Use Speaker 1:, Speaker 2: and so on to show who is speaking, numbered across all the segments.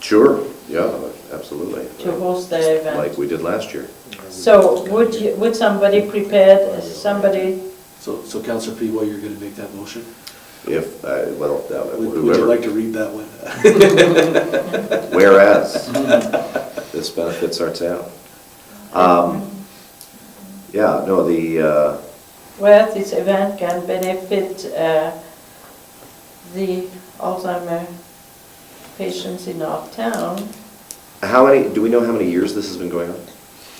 Speaker 1: Sure, yeah, absolutely.
Speaker 2: to host the
Speaker 1: Like
Speaker 2: event.
Speaker 1: we did last year.
Speaker 2: So would you, would somebody prepared, is somebody,
Speaker 3: So, so Counselor P, while you're gonna make that motion,
Speaker 1: If, uh, well, that-
Speaker 3: would would you
Speaker 1: whoever,
Speaker 3: like to read that one?
Speaker 1: whereas this benefits our town. Um, Yeah, no, the, uh,
Speaker 2: where this event can benefit uh, the Alzheimer patients in our town?
Speaker 1: how many, do we know how many years this has been going on?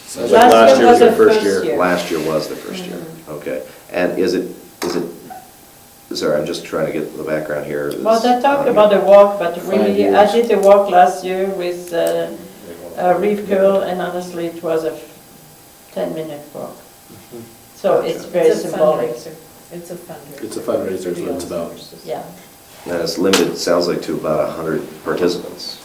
Speaker 4: Sounds like last year was
Speaker 2: the
Speaker 4: your first year.
Speaker 2: year. Mm-hmm.
Speaker 1: Last year was the first year, okay. And is it, is it, sorry, I'm just trying to get the background here.
Speaker 2: Well, they
Speaker 1: It's um, on
Speaker 2: talked
Speaker 1: here.
Speaker 2: about the walk, but really, I
Speaker 4: years.
Speaker 2: did a walk last year with uh, a Reef Girl, and honestly, it was a 10-minute walk. So it's very
Speaker 5: It's a
Speaker 2: symbolic,
Speaker 5: fundraiser. It's a fundraiser.
Speaker 3: It's a fundraiser, is what it's about.
Speaker 2: yeah.
Speaker 1: And it's limited, sounds like, to about 100 participants.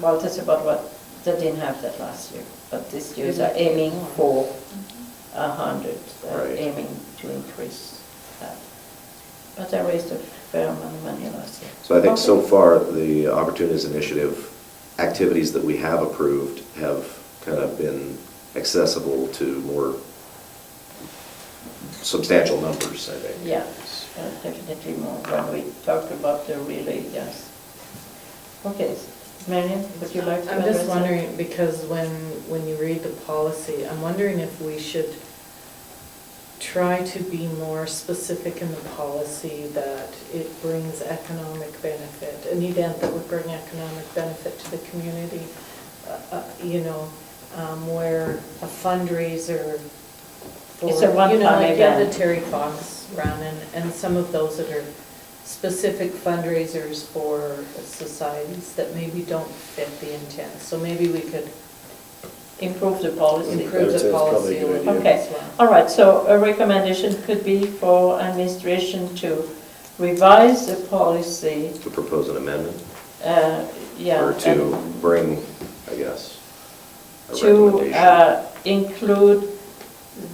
Speaker 2: Well, that's about what, they didn't have that last year, but this year they're aiming for
Speaker 5: Mm-hmm.
Speaker 2: a hundred, they're
Speaker 1: Right.
Speaker 2: aiming to increase that. But they raised a fair amount of money last year.
Speaker 1: So I think so far, the Opportunities Initiative activities that we have approved have kind of been accessible to more substantial numbers, I think.
Speaker 2: Yeah, uh, definitely more, when we talked about the relay, yes. Okay, Marion, would you like to
Speaker 5: I'm
Speaker 2: address
Speaker 5: just
Speaker 2: that?
Speaker 5: wondering, because when, when you read the policy, I'm wondering if we should try to be more specific in the policy that it brings economic benefit, an event that would bring economic benefit to the community, uh, uh, you know, um, where a fundraiser for,
Speaker 2: It's
Speaker 5: you
Speaker 2: a
Speaker 5: know,
Speaker 2: one-time
Speaker 5: like yeah, the
Speaker 2: event.
Speaker 5: Terry Fox run and, and some of those that are specific fundraisers for societies that maybe don't fit the intent. So maybe we could
Speaker 2: Improve the policy.
Speaker 5: improve
Speaker 4: That's-
Speaker 5: the
Speaker 4: that's probably
Speaker 5: policy a
Speaker 4: a good
Speaker 5: little bit
Speaker 2: idea.
Speaker 5: as well.
Speaker 2: All right, so a recommendation could be for administration to revise the policy
Speaker 1: To propose an amendment,
Speaker 2: Uh, Yeah.
Speaker 1: or to bring, I guess, a
Speaker 2: and To
Speaker 1: recommendation.
Speaker 2: uh, include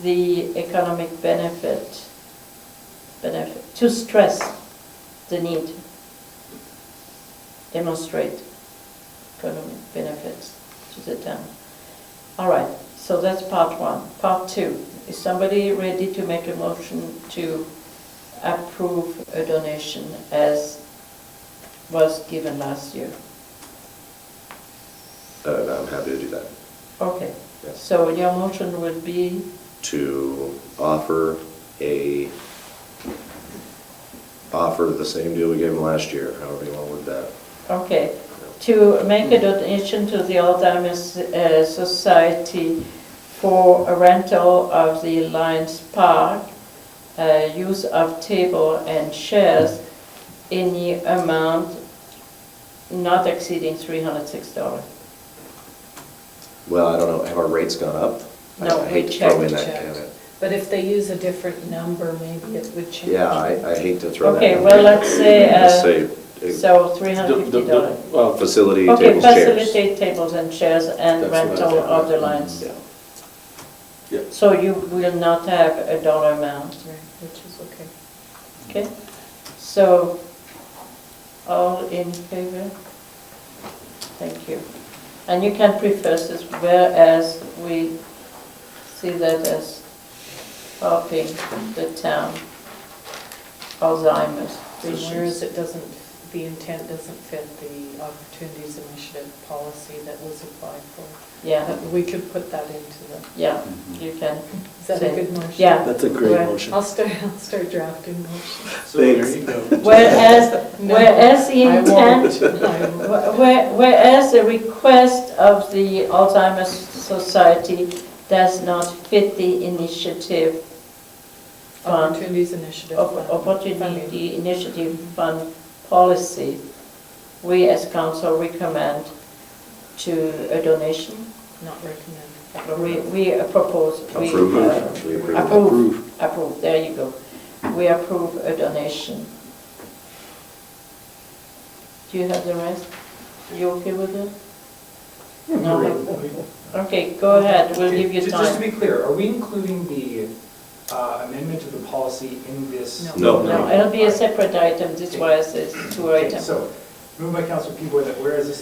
Speaker 2: the economic benefit, benefit, to stress the need, demonstrate economic benefits to the town. All right, so that's part one. Part two, is somebody ready to make a motion to approve a donation as was given last year?
Speaker 1: Uh, I'm happy to do that.
Speaker 2: Okay,
Speaker 1: Yes.
Speaker 2: so your motion would be,
Speaker 1: to offer a, offer the same deal we gave them last year, however you want to word that.
Speaker 2: okay, to make a donation to the Alzheimer's uh, Society for a rental of the Lions Park, uh, use of table and chairs in the amount not exceeding $306.
Speaker 1: Well, I don't know, have our rates gone up? I-
Speaker 2: No,
Speaker 1: I hate
Speaker 2: we
Speaker 1: to throw in
Speaker 2: checked,
Speaker 1: that
Speaker 5: checked.
Speaker 1: kind of-
Speaker 5: But if they use a different number, maybe it would change.
Speaker 1: Yeah, I, I hate to throw that.
Speaker 2: Okay,
Speaker 1: in.
Speaker 2: well, let's say,
Speaker 1: Just
Speaker 2: uh,
Speaker 1: say, uh,
Speaker 2: so
Speaker 3: The- the-
Speaker 2: $350.
Speaker 3: the- well,
Speaker 1: Facility,
Speaker 2: Okay,
Speaker 1: tables, chairs.
Speaker 2: facilitate tables and chairs and
Speaker 3: That's what I
Speaker 2: rental
Speaker 3: think,
Speaker 2: of the
Speaker 3: yeah.
Speaker 2: Lions.
Speaker 1: Yeah.
Speaker 3: Yeah,
Speaker 2: So you will not have a dollar amount,
Speaker 5: Right, Which is okay.
Speaker 2: okay? So, all in favor? Thank you. And you can preface this, whereas we see that as helping the town Alzheimer's
Speaker 5: And whereas
Speaker 2: patients.
Speaker 5: it doesn't, the intent doesn't fit the Opportunities Initiative policy that was applied for.
Speaker 2: Yeah,
Speaker 5: We could put that into the,
Speaker 2: yeah, you can.
Speaker 5: is that a good motion?
Speaker 2: Yeah.
Speaker 3: that's a great
Speaker 2: Where-
Speaker 3: motion.
Speaker 5: I'll start, I'll start drafting motions.
Speaker 3: So there you go.
Speaker 2: Whereas,
Speaker 5: No,
Speaker 2: whereas the
Speaker 5: I
Speaker 2: intent
Speaker 5: won't. I won't.
Speaker 2: Where- Whereas the request of the Alzheimer's Society does not fit the initiative fund,
Speaker 5: Opportunities Initiative.
Speaker 2: op- opportunity initiative fund policy, we as council recommend to a donation.
Speaker 5: Not recommended.
Speaker 2: We, we propose. we, uh,
Speaker 1: Approve. We approve.
Speaker 2: Approve, approve, there you go. We approve a donation. Do you have the rest? You okay with it? No? Okay, go ahead, we'll give you
Speaker 6: Ju- Just to
Speaker 2: time.
Speaker 6: be clear, are we including the uh, amendment to the policy in this?
Speaker 1: No.
Speaker 2: No, it'll be a separate item, this is why I said it's two
Speaker 6: Okay,
Speaker 2: items.
Speaker 6: So, moved by Councilor Pivoy that whereas this